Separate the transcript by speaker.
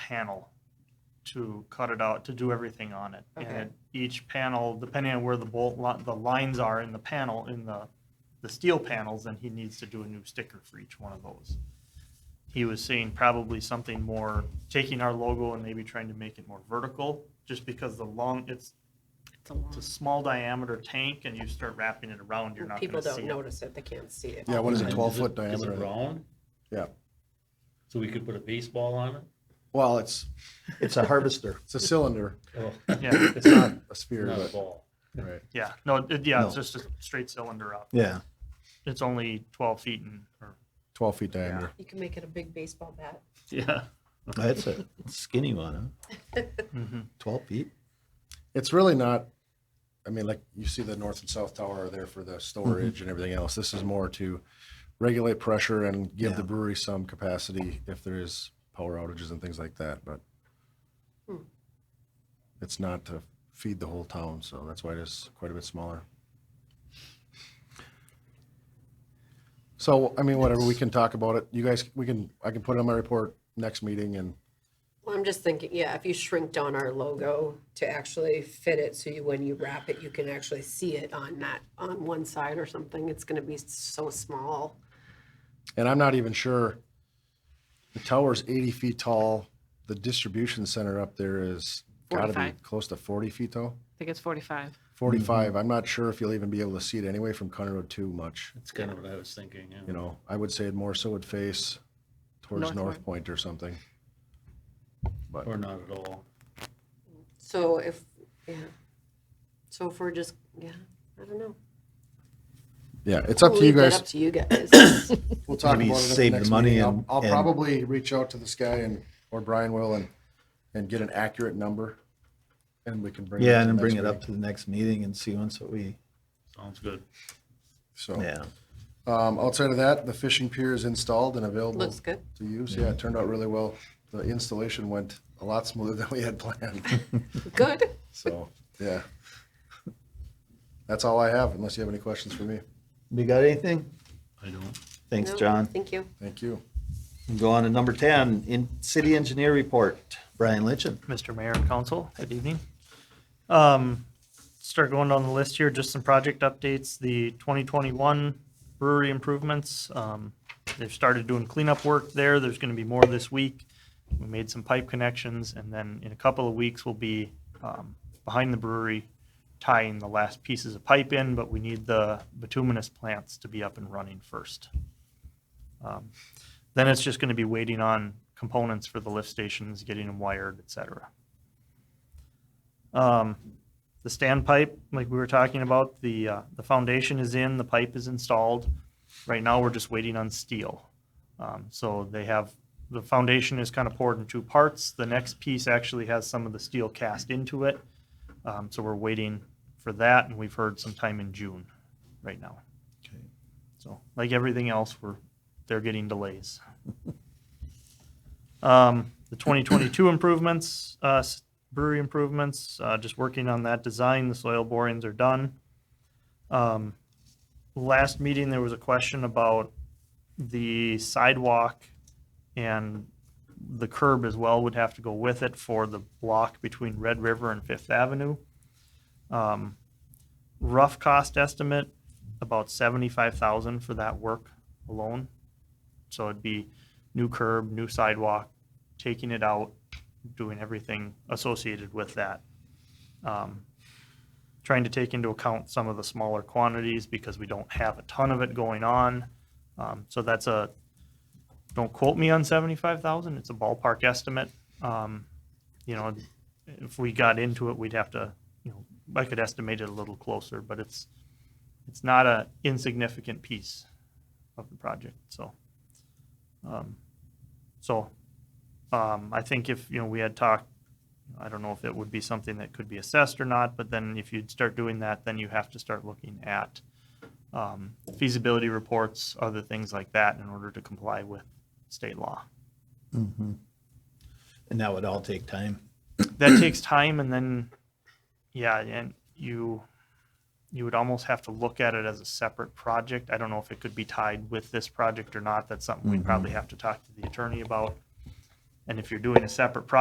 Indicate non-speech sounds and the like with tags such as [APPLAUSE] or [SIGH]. Speaker 1: panel to cut it out, to do everything on it.
Speaker 2: Okay.
Speaker 1: And each panel, depending on where the bolt, li- the lines are in the panel, in the, the steel panels, then he needs to do a new sticker for each one of those. He was saying probably something more, taking our logo and maybe trying to make it more vertical, just because the long, it's,
Speaker 3: It's a lot.
Speaker 1: it's a small diameter tank and you start wrapping it around, you're not
Speaker 2: People
Speaker 1: gonna see
Speaker 2: don't
Speaker 1: it.
Speaker 2: notice it, they can't see it.
Speaker 4: Yeah, what is it,
Speaker 5: And
Speaker 4: twelve foot
Speaker 5: it- Is it
Speaker 4: diameter?
Speaker 5: round?
Speaker 4: Yeah,
Speaker 5: So we could put a baseball on it?
Speaker 4: well, it's,
Speaker 6: It's a harvester.
Speaker 4: it's a cylinder,
Speaker 5: Oh, [LAUGHS]
Speaker 1: Yeah,
Speaker 4: it's not a sphere,
Speaker 5: Not a
Speaker 4: but,
Speaker 5: ball.
Speaker 4: right.
Speaker 1: yeah, no, it- yeah, it's
Speaker 4: No.
Speaker 1: just a straight cylinder up.
Speaker 6: [LAUGHS] Yeah.
Speaker 1: It's only twelve feet and, or,
Speaker 4: twelve feet diameter.
Speaker 2: You can make it a big baseball bat.
Speaker 1: yeah.
Speaker 6: That's a skinny one,
Speaker 1: mhm.
Speaker 6: huh? 12 feet.
Speaker 4: It's really not, I mean, like, you see the north and south tower are there for the storage and everything else. This is more to regulate pressure and give the
Speaker 6: Yeah.
Speaker 4: brewery some capacity if there is power outages and things like that, but
Speaker 2: Hmm.
Speaker 4: it's not to feed the whole town, so that's why it is quite a bit smaller. So, I mean, whatever, we can talk about it. You guys, we can, I can put it on my report next meeting and
Speaker 2: Well, I'm just thinking, yeah, if you shrink down our logo to actually fit it, so you, when you wrap it, you can actually see it on that, on one side or something, it's gonna be so small.
Speaker 4: And I'm not even sure, the tower's eighty feet tall, the distribution center up there is gotta be
Speaker 3: 45.
Speaker 4: close to forty feet tall,
Speaker 3: I think it's 45.
Speaker 6: Mm-hmm.
Speaker 4: forty-five. I'm not sure if you'll even be able to see it anyway from County Road too much,
Speaker 5: That's kind of what I was thinking, yeah.
Speaker 4: you know? I would say it more so would face towards
Speaker 3: North
Speaker 4: North Point or something. But,
Speaker 5: Or not at all.
Speaker 2: So if, yeah, so if we're just, yeah, I don't know.
Speaker 4: yeah, it's up
Speaker 2: We'll
Speaker 4: to you
Speaker 2: leave that
Speaker 4: guys.
Speaker 2: Up to you guys.
Speaker 4: [COUGHS] We'll talk about
Speaker 6: Maybe
Speaker 4: it at the
Speaker 6: save the
Speaker 4: next
Speaker 6: money
Speaker 4: meeting. I'll,
Speaker 6: and-
Speaker 4: I'll
Speaker 6: and-
Speaker 4: probably reach out to this guy and, or Brian will and, and get an accurate number. And we can bring. it
Speaker 6: Yeah,
Speaker 4: to
Speaker 6: and then
Speaker 4: the
Speaker 6: bring
Speaker 4: next
Speaker 6: it up
Speaker 4: meeting.
Speaker 6: to the next meeting and see once what we,
Speaker 5: Sounds good.
Speaker 4: So.
Speaker 6: yeah.
Speaker 4: Um, outside of that, the fishing pier is installed and available
Speaker 2: Looks good.
Speaker 4: to use. Yeah, it turned out really well. The installation went a lot smoother [LAUGHS] than we had planned.
Speaker 2: Good.
Speaker 4: So, yeah. That's all I have, unless you have any questions for me.
Speaker 6: You got anything?
Speaker 5: I don't.
Speaker 6: Thanks,
Speaker 2: No,
Speaker 6: John.
Speaker 2: Thank you.
Speaker 4: Thank you.
Speaker 6: Go on to number 10, in city engineer report, Brian Litchin.
Speaker 1: Mr. Mayor and Council, good evening. Um, Start going down the list here, just some project updates, the 2021 brewery improvements. um, They've started doing cleanup work there, there's going to be more this week. We made some pipe connections, and then in a couple of weeks, we'll be um, behind the brewery tying the last pieces of pipe in, but we need the bituminous plants to be up and running first. Um, then it's just going to be waiting on components for the lift stations, getting them wired, et cetera. Um, The standpipe, like we were talking about, the, uh, the foundation is in, the pipe is installed. Right now, we're just waiting on steel. Um, So they have, the foundation is kind of poured in two parts. The next piece actually has some of the steel cast into it. Um, So we're waiting for that, and we've heard sometime in June right now. So like everything else, we're, they're getting delays. [LAUGHS] Um, The 2022 improvements, uh, s- brewery improvements, uh, just working on that design, the soil borings are done. Um, Last meeting, there was a question about the sidewalk and the curb as well would have to go with it for the block between Red River and Fifth Avenue. Um, Rough cost estimate, about 75,000 for that work alone. So it'd be new curb, new sidewalk, taking it out, doing everything associated with that. Um, Trying to take into account some of the smaller quantities because we don't have a ton of it going on. Um, So that's a, don't quote me on 75,000, it's a ballpark estimate. Um, You know, if we got into it, we'd have to, you know, I could estimate it a little closer, but it's, it's not a insignificant piece of the project, so. um, So, um, I think if, you know, we had talked, I don't know if it would be something that could be assessed or not, but then if you'd start doing that, then you have to start looking at um, feasibility reports, other things like that in order to comply with state law.
Speaker 6: Mhm. And that would all take time.
Speaker 1: that takes time and then yeah and you you would almost have to look at it as a separate project i don't know if it could be tied with this project or not that's something we'd probably have to talk to the attorney about and if you're doing a separate project